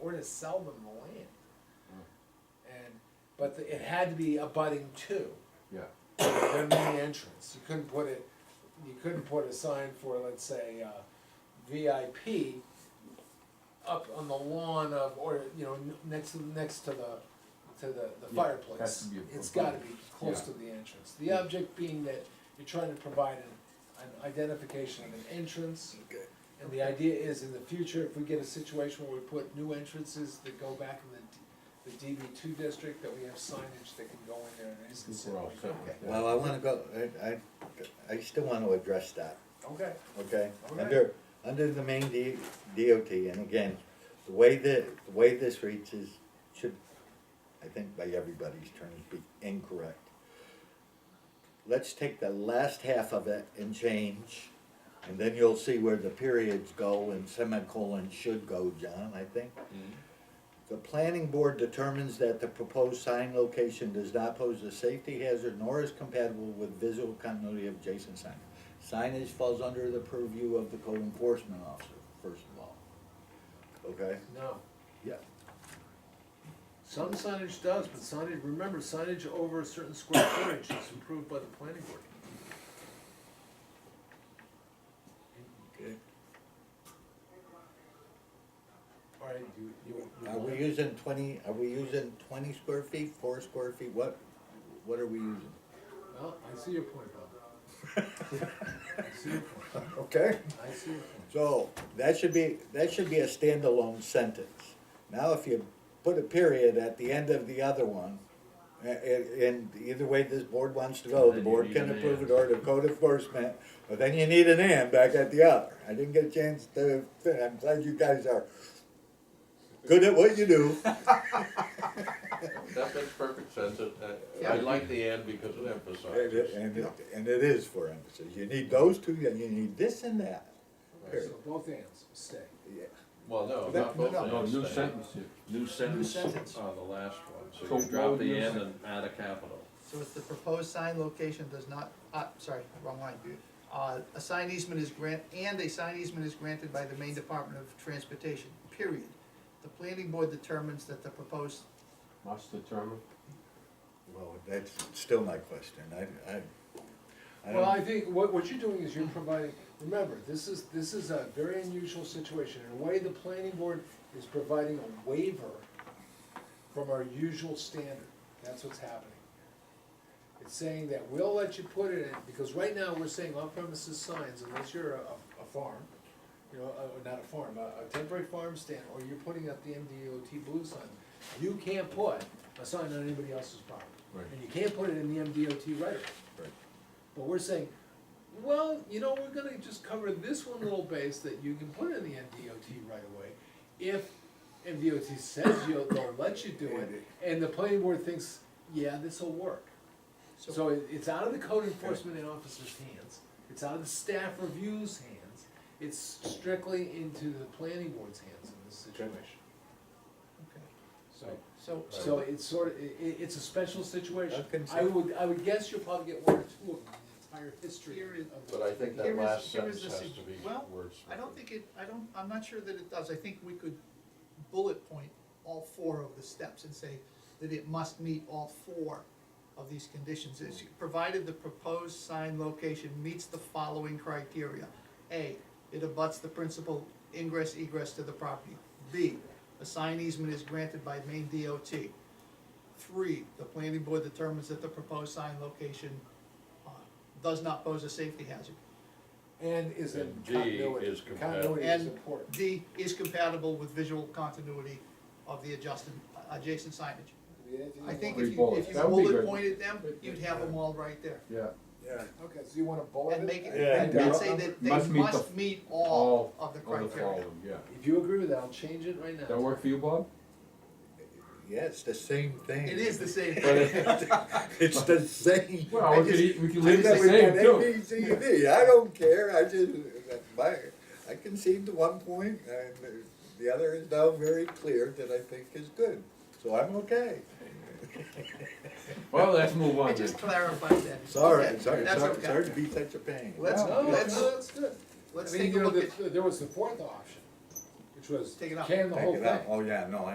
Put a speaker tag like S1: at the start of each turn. S1: gonna sell them the land. And, but the- it had to be abutting two,
S2: Yeah,
S1: their main entrance, you couldn't put it, you couldn't put a sign for, let's say, uh, VIP up on the lawn of, or, you know, n- next, to- next to the, to the, the
S2: Yeah,
S1: fireplace.
S2: has to be a-
S1: It's gotta be close
S2: Yeah.
S1: to the entrance, the object being that you're trying to provide an, an identification of an entrance. And the idea is, in the future, if we get a situation where we put new entrances that go back in the, D- the DB two district, that we have signage that can go in there and is
S2: We're all
S1: considered.
S2: set
S1: like-
S2: with that.
S3: Well, I wanna go, I, I, I still wanna address that,
S1: Okay,
S3: okay?
S1: Okay.
S3: Under, under the main D, DOT, and again, the way that, the way this reads is, should, I think by everybody's terms, be incorrect. Let's take the last half of it and change, and then you'll see where the periods go and semicolons should go, John, I think. The planning board determines that the proposed sign location does not pose a safety hazard nor is compatible with visual continuity of adjacent sign. Signage falls under the purview of the code enforcement officer, first of all. Okay?
S1: no,
S3: Yeah.
S1: some signage does, but signage, remember, signage over a certain square footage is approved by the planning board.
S3: Okay.
S1: All right, you, you. you
S3: Are we
S1: want-
S3: using twenty, are we using twenty square feet, four square feet, what, what are we using?
S1: Well, I see your point, Bob. I see your point,
S3: Okay.
S1: I see your point.
S3: So, that should be, that should be a standalone sentence. Now, if you put a period at the end of the other one, a- a- and either way this board wants to go, the
S2: Then you
S3: board
S2: need
S3: can
S2: an
S3: approve
S2: and.
S3: it or the code enforcement, but then you need an and back at the other. I didn't get a chance to, I'm glad you guys are good at what you do.
S4: That makes perfect sense, It- I- I
S1: Yeah.
S4: like the and because it
S3: And it,
S4: emphasizes.
S3: and it, and it is for emphasis. You need those two, and you need this and that.
S1: So both ends stay.
S3: Yeah.
S4: Well, no,
S3: That-
S4: not both
S3: no,
S4: ends.
S2: no, new
S4: they-
S2: sentence here,
S4: New sentence
S5: sentence.
S4: on the last one,
S2: So
S4: so you
S2: what
S4: drop
S2: would you
S4: the and
S2: say?
S4: and add a capital.
S5: So if the proposed sign location does not, uh, sorry, wrong line. Uh, a sign easement is grant, and a sign easement is granted by the Maine Department of Transportation, period. The planning board determines that the proposed,
S2: must determine.
S3: Well, that's still my question. I, I. I
S1: Well,
S3: don't-
S1: I think what, what you're doing is you're providing, remember, this is, this is a very unusual situation. In a way, the planning board is providing a waiver from our usual standard. That's what's happening. It's saying that we'll let you put it in, because right now, we're saying on premises signs, unless you're a, a farm, you know, uh, not a farm, a, a temporary farm stand, or you're putting up the MDOT blue sign, you can't put a sign on anybody else's property.
S2: Right.
S1: And you can't put it in the MDOT right of
S3: Right.
S1: but we're saying, well, you know, we're gonna just cover this one little base that you can put in the MDOT right away. If MDOT says you'll, they'll let you do it, and the planning board thinks, yeah, this'll work. So it, it's out of the code enforcement officer's hands, it's out of the staff review's hands, it's strictly into the planning board's hands in this situation.
S5: okay,
S1: So,
S5: so,
S1: so
S5: so,
S1: it's sort of, i- i- it's a special situation.
S3: Okay, so-
S1: I would, I would guess you'll probably get one or two of them in the entire history
S5: Here
S1: of
S5: is-
S1: this.
S4: But I think
S5: Here
S4: that
S5: is-
S4: last
S5: here is
S4: sentence
S5: the
S4: has
S5: sig-
S4: to be
S5: well,
S4: words.
S5: I don't think it, I don't, I'm not sure that it does, I think we could bullet point all four of the steps and say that it must meet all four of these conditions, is provided the proposed sign location meets the following criteria. A, it abuts the principal ingress egress to the property. B, a sign easement is granted by Maine DOT. Three, the planning board determines that the proposed sign location uh, does not pose a safety hazard.
S1: And is in
S4: And D
S1: continuity.
S4: is
S1: Continuity is
S5: And
S1: important.
S5: D is compatible with visual continuity of the adjusted, adjacent signage. I think if
S2: Three
S5: you,
S2: bullets.
S5: if you
S2: That would be
S5: bullet
S2: good.
S5: pointed them, you'd have them all right there.
S2: Yeah.
S3: Yeah.
S1: Okay, so you wanna bullet
S5: And make it,
S3: Yeah.
S5: and and say that
S2: Must
S5: they
S2: meet the-
S5: must meet all
S2: All
S5: of the
S2: the
S5: criteria.
S2: following, yeah.
S1: If you agree with that, I'll change it right now.
S2: That work for you, Bob?
S3: Yeah, it's the same thing.
S5: It is the same
S2: But
S5: thing.
S2: it-
S3: It's the same.
S2: Well,
S3: I
S2: we could
S3: just-
S2: e- we could
S3: I
S2: leave it the
S3: never
S2: same,
S3: did
S2: too.
S3: A, B, C, D. I don't care, I just, my, I concede to one point, and the- the other is now very clear that I think is good, so I'm okay.
S2: Well, let's move
S5: I
S2: on then.
S5: just clarified that.
S3: Sorry,
S5: Okay,
S3: sorry,
S5: That's
S3: sorry, sorry
S5: okay.
S3: to be such a pain.
S5: Let's,
S2: No,
S1: No, that's,
S5: let's,
S1: that's good.
S5: let's
S1: I mean,
S5: take a
S1: you know,
S5: look at.
S1: the- There was the fourth option, which was
S5: Take it out.
S1: can the
S3: Take
S1: whole
S3: it out.
S1: thing.
S3: Oh, yeah, no, I